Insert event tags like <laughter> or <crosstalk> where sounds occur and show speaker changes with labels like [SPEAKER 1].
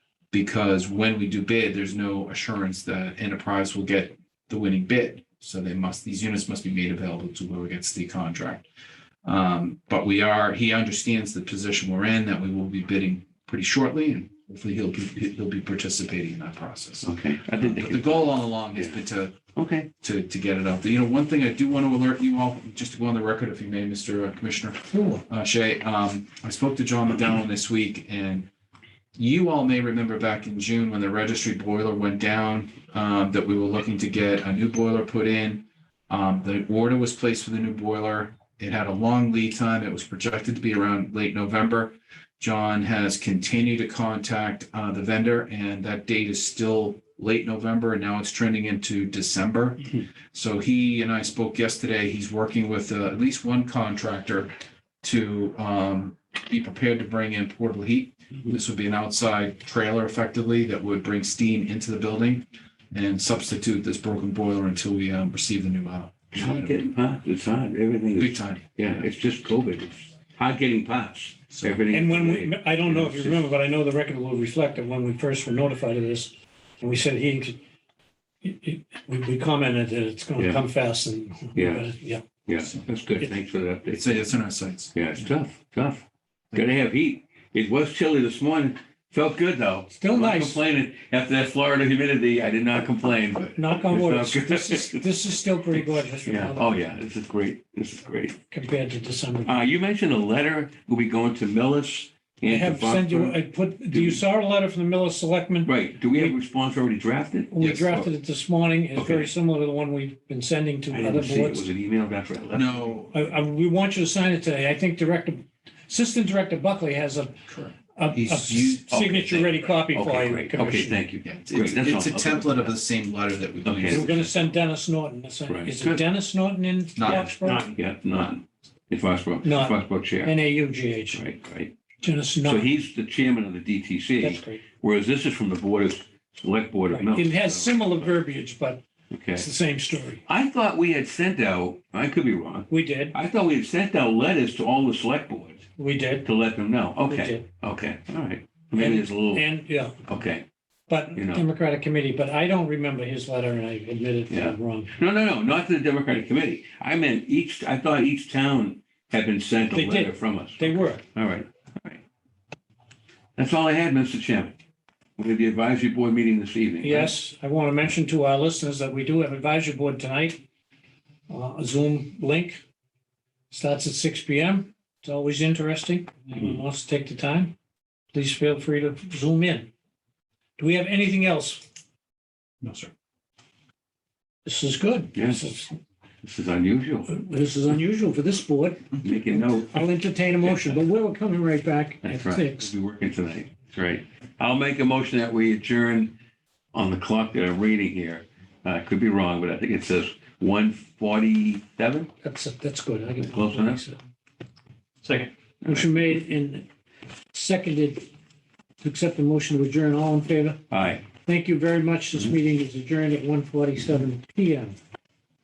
[SPEAKER 1] Because when we do bid, there's no assurance that enterprise will get the winning bid. So they must, these units must be made available to whoever gets the contract. Um, but we are, he understands the position we're in, that we will be bidding pretty shortly and hopefully he'll be, he'll be participating in that process.
[SPEAKER 2] Okay, I didn't
[SPEAKER 1] But
[SPEAKER 2] think,
[SPEAKER 1] the
[SPEAKER 2] it-
[SPEAKER 1] goal all along has been to
[SPEAKER 2] okay,
[SPEAKER 1] to, to get it out there. You know, one thing I do want to alert you all, just to go on the record, if you may, Mr. Commissioner uh, Shea, um, I spoke to John McDonald this week and you all may remember back in June when the registry boiler went down, um, that we were looking to get a new boiler put in. Um, the order was placed for the new boiler. It had a long lead time. It was projected to be around late November. John has continued to contact, uh, the vendor and that date is still late November and now it's trending into December.
[SPEAKER 2] Mhm.
[SPEAKER 1] So he and I spoke yesterday. He's working with uh, at least one contractor to um, be prepared to bring in portable heat.
[SPEAKER 2] Mhm.
[SPEAKER 1] This would be an outside trailer effectively that would bring steam into the building and substitute this broken boiler until we um, receive the new model.
[SPEAKER 2] it's hard getting parts, it's hard, everything
[SPEAKER 1] Big
[SPEAKER 2] is,
[SPEAKER 1] time.
[SPEAKER 2] yeah, it's just COVID, it's hard getting parts,
[SPEAKER 1] So-
[SPEAKER 2] everything.
[SPEAKER 3] And when we, I don't know if you remember, but I know the record will reflect that when we first were notified of this, and we said he, he- he- we, we commented that it's
[SPEAKER 2] Yeah.
[SPEAKER 3] gonna come fast and.
[SPEAKER 2] Yeah.
[SPEAKER 3] but it- Yeah,
[SPEAKER 2] Yeah, that's good, thanks for the
[SPEAKER 1] It's,
[SPEAKER 2] update.
[SPEAKER 1] it's in our sights.
[SPEAKER 2] Yeah, it's tough, tough, gotta have heat, it was chilly this morning, felt good though.
[SPEAKER 3] Still
[SPEAKER 2] I'm not
[SPEAKER 3] Oh, nice.
[SPEAKER 2] Complaining, after that Florida humidity, I did not complain, but,
[SPEAKER 3] knock on
[SPEAKER 2] It's
[SPEAKER 3] wood,
[SPEAKER 2] not
[SPEAKER 3] it's-
[SPEAKER 2] good.
[SPEAKER 3] this is, this is still
[SPEAKER 2] <laughs>
[SPEAKER 3] pretty gorgeous
[SPEAKER 2] yeah, oh yeah, this is great, this is great.
[SPEAKER 3] compared to December.
[SPEAKER 2] Uh, you mentioned a letter, will be going to Millis
[SPEAKER 3] I
[SPEAKER 2] and to
[SPEAKER 3] have sent you,
[SPEAKER 2] Buckland.
[SPEAKER 3] I put, do you saw a letter from the Miller Selectmen?
[SPEAKER 2] Right, do we have a response already drafted?
[SPEAKER 3] We
[SPEAKER 1] Yes.
[SPEAKER 3] drafted it this morning. It's
[SPEAKER 2] Okay.
[SPEAKER 3] very similar to the one we've been sending
[SPEAKER 2] I
[SPEAKER 3] to other
[SPEAKER 2] didn't see it, was
[SPEAKER 3] boards.
[SPEAKER 2] it emailed after I left?
[SPEAKER 1] No,
[SPEAKER 3] I, I, we want you to sign it today. I think Director, Assistant Director Buckley has a
[SPEAKER 1] correct.
[SPEAKER 3] a, a
[SPEAKER 1] He's used-
[SPEAKER 2] okay,
[SPEAKER 3] signature ready copy for
[SPEAKER 2] Okay,
[SPEAKER 3] you,
[SPEAKER 2] great, okay,
[SPEAKER 3] Commissioner.
[SPEAKER 2] thank you.
[SPEAKER 1] Yeah, it's,
[SPEAKER 2] Great, that's
[SPEAKER 1] it's a
[SPEAKER 2] all. Okay.
[SPEAKER 1] template of the same letter that we've
[SPEAKER 2] Okay.
[SPEAKER 3] We're
[SPEAKER 1] used.
[SPEAKER 3] gonna send Dennis Norton. That's-
[SPEAKER 2] Right.
[SPEAKER 3] Is it
[SPEAKER 2] Good.
[SPEAKER 3] Dennis Norton in
[SPEAKER 1] Not-
[SPEAKER 3] Foxborough?
[SPEAKER 2] None, yeah, none, in Foxborough,
[SPEAKER 3] None.
[SPEAKER 2] Foxborough Chair,
[SPEAKER 3] N A U G H.
[SPEAKER 2] right, right.
[SPEAKER 3] Dennis
[SPEAKER 2] So
[SPEAKER 3] Norton.
[SPEAKER 2] he's the chairman of the
[SPEAKER 3] That's
[SPEAKER 2] DTC,
[SPEAKER 3] great.
[SPEAKER 2] whereas this is from the Board of, Select Board of
[SPEAKER 3] Right. It
[SPEAKER 2] Millis.
[SPEAKER 3] has
[SPEAKER 2] so-
[SPEAKER 3] similar verbiage, but
[SPEAKER 2] Okay,
[SPEAKER 3] it's the same story.
[SPEAKER 2] I thought we had sent out, I could be wrong,
[SPEAKER 3] We did,
[SPEAKER 2] I thought we had sent out letters to all the select boards
[SPEAKER 3] we did,
[SPEAKER 2] to let them know,
[SPEAKER 3] we
[SPEAKER 2] okay,
[SPEAKER 3] did.
[SPEAKER 2] okay, all right. Maybe it's a little,
[SPEAKER 3] And, yeah,
[SPEAKER 2] okay.
[SPEAKER 3] but
[SPEAKER 2] You know.
[SPEAKER 3] Democratic Committee, but I don't remember his letter and I admitted that I'm wrong.
[SPEAKER 2] No, no, no, not to the Democratic Committee. I meant each, I thought each town had been sent a
[SPEAKER 3] They did.
[SPEAKER 2] letter from us.
[SPEAKER 3] They were.
[SPEAKER 2] All right, all right. That's all I had, Mr. Chairman. We have the advisory board meeting this evening. right?
[SPEAKER 3] Yes, I want to mention to our listeners that we do have advisory board tonight. uh, a Zoom link starts at six P M. It's always interesting. Anyone wants to take the time, please feel free to zoom in. Do we have anything else?
[SPEAKER 1] No, sir.
[SPEAKER 3] This is good.
[SPEAKER 2] Yes.
[SPEAKER 3] This is-
[SPEAKER 2] This is unusual.
[SPEAKER 3] This is unusual for this board.
[SPEAKER 2] Make a note.
[SPEAKER 3] I'll entertain a motion, but we're coming right back at
[SPEAKER 2] That's right.
[SPEAKER 3] six.
[SPEAKER 2] We'll be working tonight. That's right. I'll make a motion that we adjourn on the clock that I'm reading here. I could be wrong, but I think it says one forty-seven.
[SPEAKER 3] That's, that's good. I can.
[SPEAKER 2] Close enough.
[SPEAKER 3] Second. Motion made and seconded to accept the motion to adjourn. All in favor?
[SPEAKER 2] Aye.
[SPEAKER 3] Thank you very much. This meeting is adjourned at 1:47 PM.